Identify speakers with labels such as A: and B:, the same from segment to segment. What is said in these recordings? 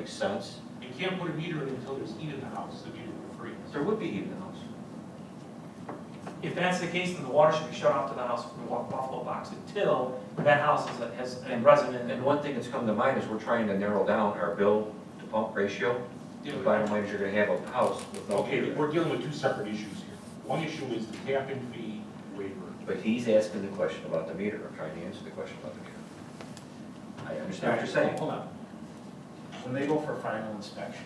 A: Makes sense.
B: You can't put a meter in until there's heat in the house, the meter will freeze.
A: There would be heat in the house.
C: If that's the case, then the water should be shut off to the house from the wa- Buffalo box until that house is, a- has a resident.
A: And one thing that's come to mind is we're trying to narrow down our bill to pump ratio. The
B: Yeah,
A: bottom line is you're gonna have a house with no
B: Okay,
A: heater.
B: we're dealing with two separate issues here. One issue is the tap-in fee waiver.
A: But he's asking the question about the meter, I'm trying to answer the question about the meter. I understand what you're saying.
B: Hold on,
D: When they go for final inspection,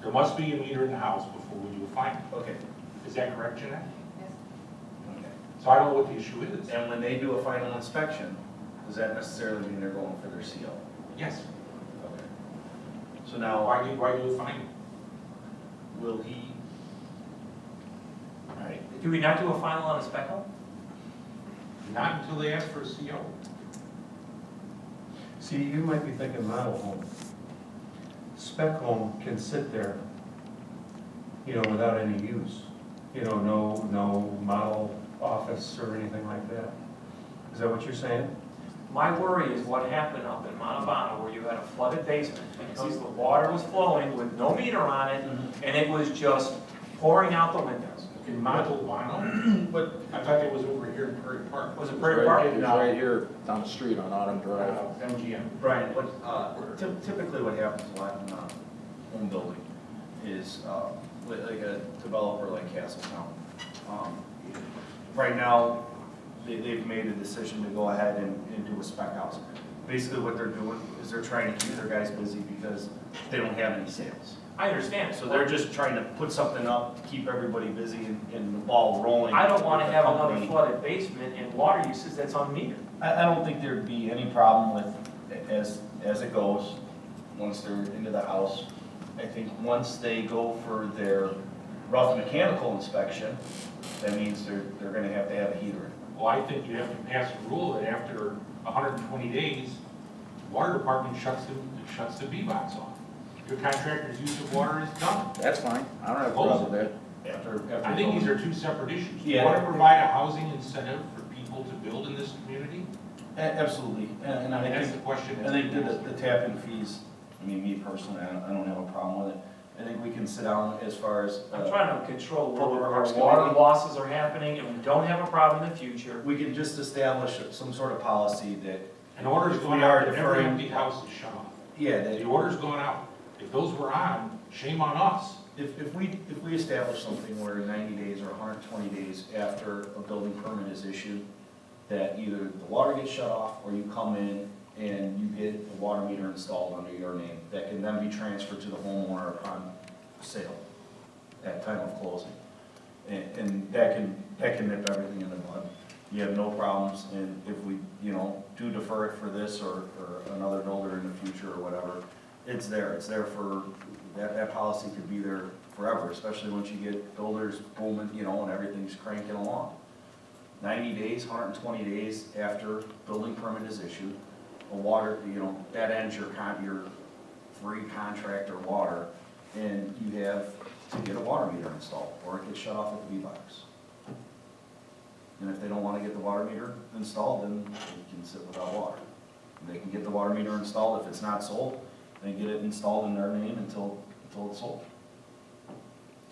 B: there must be a meter in the house before we do a final.
D: okay,
B: Is that correct, Jeanette?
D: okay.
B: So I don't know what the issue is.
D: And when they do a final inspection, does that necessarily mean they're going for their CO?
B: Yes,
D: Okay. So
B: Now,
D: now,
B: why do, why do a final?
D: will he? All right,
C: Do we not do a final on a spec home?
B: Not until they ask for a CO.
E: See, you might be thinking model home. Spec home can sit there, you know, without any use. You know, no, no model office or anything like that. Is that what you're saying?
C: My worry is what happened up in Montebonne where you had a flooded basement because the water was flowing with no meter on it
D: Mm-hmm.
C: and it was just pouring out the windows.
B: In Montalbano,
D: but
B: I thought that was over here in Prairie Park.
C: Was it
F: Right-
C: Prairie Park?
F: It's right here down the street on Autumn Drive.
B: Uh, MGM.
D: Brian, what, uh, typ- typically what happens a lot in, uh, home building is, uh, li- like a developer like Castletown. um, Right now, they, they've made a decision to go ahead and, and do a spec house. Basically what they're doing is they're trying to keep their guys busy because they don't have any sales.
C: I understand.
D: So they're just trying to put something up, to keep everybody busy and, and the ball rolling.
C: I don't want to
D: with the
C: have another
D: company.
C: flooded basement and water uses that's unmetered.
G: I, I don't think there'd be any problem with, as, as it goes, once they're into the house. I think once they go for their rough mechanical inspection, that means they're, they're gonna have to have a heater.
B: Well, I think you have to pass a rule that after 120 days, water department shuts the, shuts the V-Box off. Your contractor's use of water is done.
F: That's fine, I don't have a problem with that.
G: After, after.
B: I think these are two separate issues. You
G: Yeah.
B: want to provide a housing incentive for people to build in this community?
G: A- Absolutely, and, and I
B: That's
G: think,
B: the question.
G: I think that the, the tap-in fees, I mean, me personally, I don't, I don't have a problem with it. I think we can sit down as far as. uh,
C: I'm trying to control where
G: Public
C: our
G: Works
C: water
G: Committee.
C: losses are happening and we don't have a problem in the future.
G: We can just establish some sort of policy that,
B: An order's
G: If we
B: going
G: are
B: out, every
G: deferring-
B: empty house is shut off.
G: yeah, that.
B: The order's going out. If those were on, shame on us.
G: If, if we, if we establish something where ninety days or hundred and twenty days after a building permit is issued, that either the water gets shut off, or you come in and you get the water meter installed under your name, that can then be transferred to the homeowner upon sale at time of closing. And, and that can, that can nip everything in the bud. You have no problems, and if we, you know, do defer it for this or, or another builder in the future or whatever, it's there, it's there for, that, that policy could be there forever, especially once you get builders booming, you know, and everything's cranking along. Ninety days, hundred and twenty days after building permit is issued, a water, you know, that ends your con, your free contract or water, and you have to get a water meter installed, or it gets shut off at the V-Box. And if they don't wanna get the water meter installed, then they can sit without water. They can get the water meter installed, if it's not sold, they get it installed in their name until, until it's sold.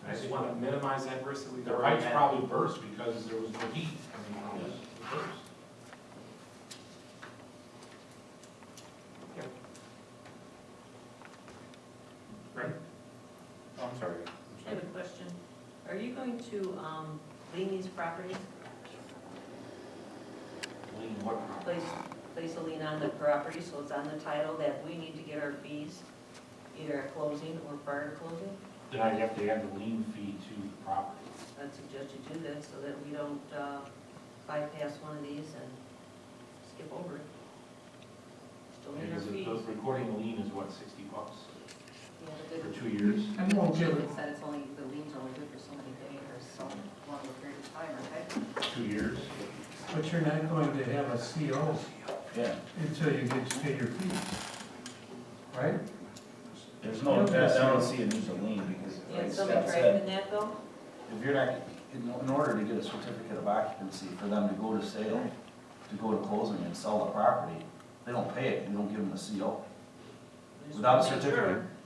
C: I just want to minimize that risk that we've.
B: The pipes probably burst because there was no heat coming out of this. It burst.
A: I'm sorry.
H: I have a question. Are you going to um, lean these properties,
B: Lean what property?
H: place, place a lien on the property so it's on the title that we need to get our fees either at closing or prior to closing?
B: Then I'd have to add the lien fee to the property.
H: I'd suggest you do that so that we don't uh, bypass one of these and skip over it. Still need our
B: Because the
H: fees.
B: the recording lien is what, sixty bucks
I: Yeah,
B: for
I: the
B: two years?
I: I mean, the gentleman said it's only, the lien's only good for so many days or so long a period of time, okay?
B: Two years?
E: But you're not going to have a CO
G: Yeah,
E: until you get to pay your fees, right?
G: there's no, I don't see it as a lien, because
H: Yeah,
G: like
H: somebody
G: Scott
H: driving
G: said,
H: that though?
G: if you're not, in, in order to get a certificate of occupancy for them to go to sale, to go to closing and sell the property, they don't pay it, we don't give them a CO. Without a
H: Just wanna make sure
G: certificate.